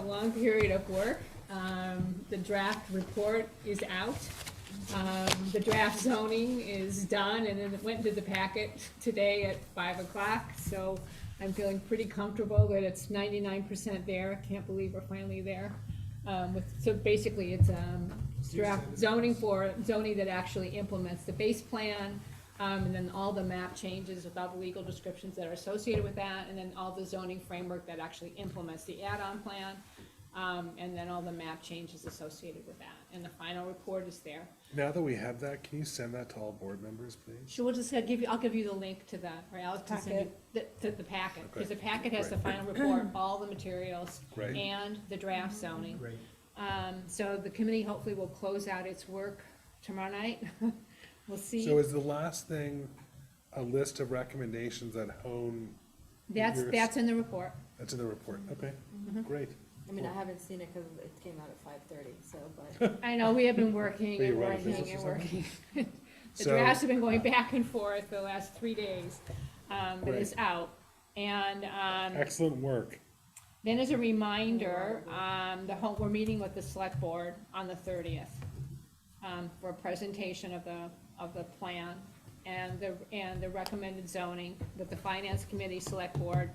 long period of work. Um, The draft report is out. Um, The draft zoning is done, and then it went into the packet today at five o'clock. So I'm feeling pretty comfortable that it's ninety-nine percent there. Can't believe we're finally there. Um, with, so basically, it's, um, draft zoning for, zoning that actually implements the base plan, um, and then all the map changes with all the legal descriptions that are associated with that, and then all the zoning framework that actually implements the add-on plan, um, and then all the map changes associated with that, and the final report is there. Now that we have that, can you send that to all board members, please? She will just uh, give you, I'll give you the link to that, or Alex can send you the, to the packet, because the packet has the final report, all the materials, Right. and the draft zoning. Right. Um, so the committee hopefully will close out its work tomorrow night. We'll So see. is the last thing a list of recommendations that hone, That's, yours? that's in the report. that's in the report? Okay, great. I mean, I haven't seen it because it came out at five thirty, so, but I know, we have been Are working you and running working business and or working. The So- drafts have been going back and forth the last three days, um, but it's out. And, um, Excellent work. Then as a reminder, um, the whole, we're meeting with the select board on the thirtieth, um, for a presentation of the, of the plan and the, and the recommended zoning with the finance committee, select board.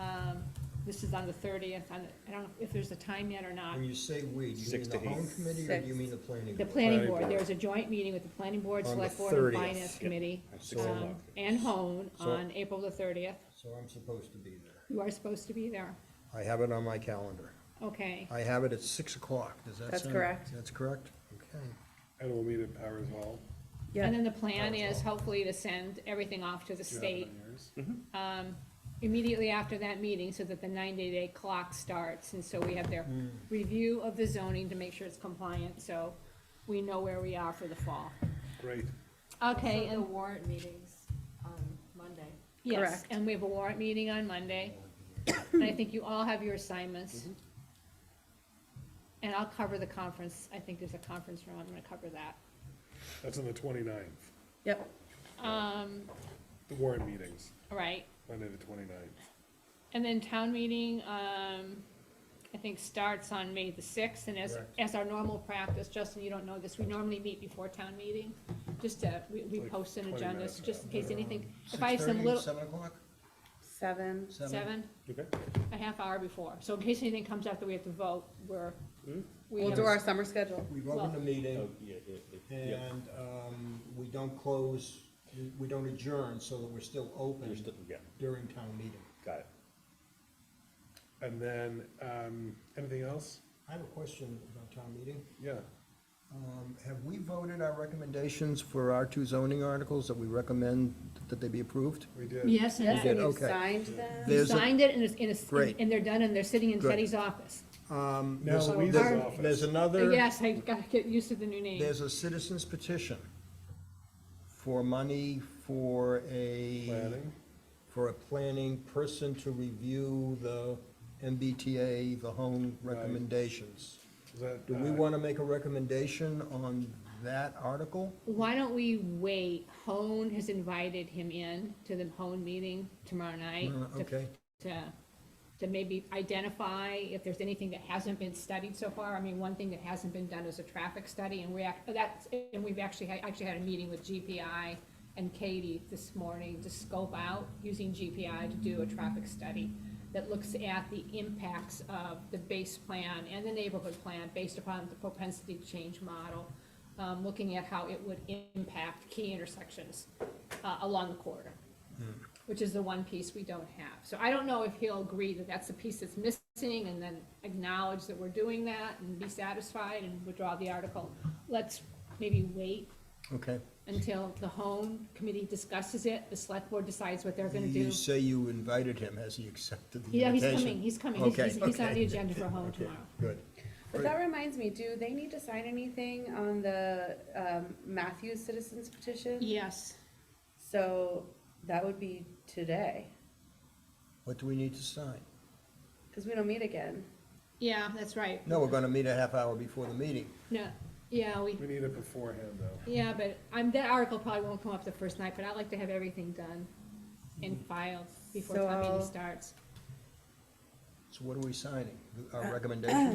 Um, this is on the thirtieth, I don't know if there's a time yet or not. When you say we, do you Six to mean the home eight. committee or do you Six. mean the planning? The board? planning Planning board, board. there's a joint meeting with the planning board, On the select board, and 30th. finance committee, At six So- o'clock. um, and hone So- on April the thirtieth. So I'm supposed to be there. You are supposed to be there, I have it on my calendar. okay. I have it at six o'clock, does that sound? That's correct. That's correct? Okay. And we'll meet at Powers Hall. And then the plan is hopefully to send everything off to the Do you have it state on yours? immediately after that meeting so that the ninety day clock starts, and so we have their review of the zoning to make sure it's compliant, so we know where we are for the fall. Great. Okay, the and, warrant meetings on Monday. yes, Correct. and we have a warrant meeting on Monday, and I think you all have your assignments. And I'll cover the conference, I think there's a conference room, I'm gonna cover that. That's on the twenty-ninth, Yep. Um, the warrant meetings, all right, Monday the twenty-ninth. And then town meeting, um, I think starts on May the sixth, and as, Correct. as our normal practice, Justin, you don't know this, we normally meet before town meeting, just to, we, we Like post an 20 agenda, minutes so just in out. case anything, if I have some 6:30, little, Um, Seven o'clock? Seven. seven, Okay, a half hour before, so in case anything comes up that we have to vote, we're, we We'll have- do our summer schedule. We've Well- opened the Oh, meeting Oh, Yeah, yeah, yeah, yeah. and, um, we don't close, we- we don't adjourn so that we're still open You're still- yeah. during town meeting. Got it. and then, um, anything else? I have a question about town meeting. Yeah, Um, Have we voted our recommendations for our two zoning articles that we recommend that they be approved? we did. Yes, and Yes, that- did, and you okay. signed them. you There's a- signed it, and it's, and it's, Great. and they're done, and they're sitting in Good. Teddy's office. Now, um, There's- Louise's there's- office. There's another. Uh, Yes, I gotta get used to the new name. There's a citizen's petition for money for a. Planning? For a planning person to review the MBTA, the home recommendations. Is that, Do we uh, want to make a recommendation on that article? Why don't we wait? Hone has invited him in to the Hone meeting tomorrow night. Uh, to- Okay, To, to maybe identify if there's anything that hasn't been studied so far. I mean, one thing that hasn't been done is a traffic study and we, ac- that's, and we've actually, had actually had a meeting with GPI and Katie this morning to scope out using GPI to do a traffic study that looks at the impacts of the base plan and the neighborhood plan based upon the propensity to change model, um, looking at how it would impact key intersections, uh, along the corridor, which is the one piece we don't have. So I don't know if he'll agree that that's the piece that's missing and then acknowledge that we're doing that and be satisfied and withdraw the article. Let's maybe wait okay. until the home committee discusses it, the select board decides what they're gonna do. You say you invited him, has he accepted the Yeah, he's invitation? coming, he's coming, he's, Okay, he's- he's on okay. the agenda for home tomorrow. Good. But that reminds me, do they need to sign anything on the um, Matthews citizens petition? Yes, So that would be today, What do we need to sign? because we don't meet again. yeah, that's right. No, we're going to meet a half hour before the meeting. No, yeah, we, We need it beforehand, though. yeah, but, um, that article probably won't come up the first night, but I like to have everything done and filed before So town meeting I'll- starts. So what are we signing? Our recommendation?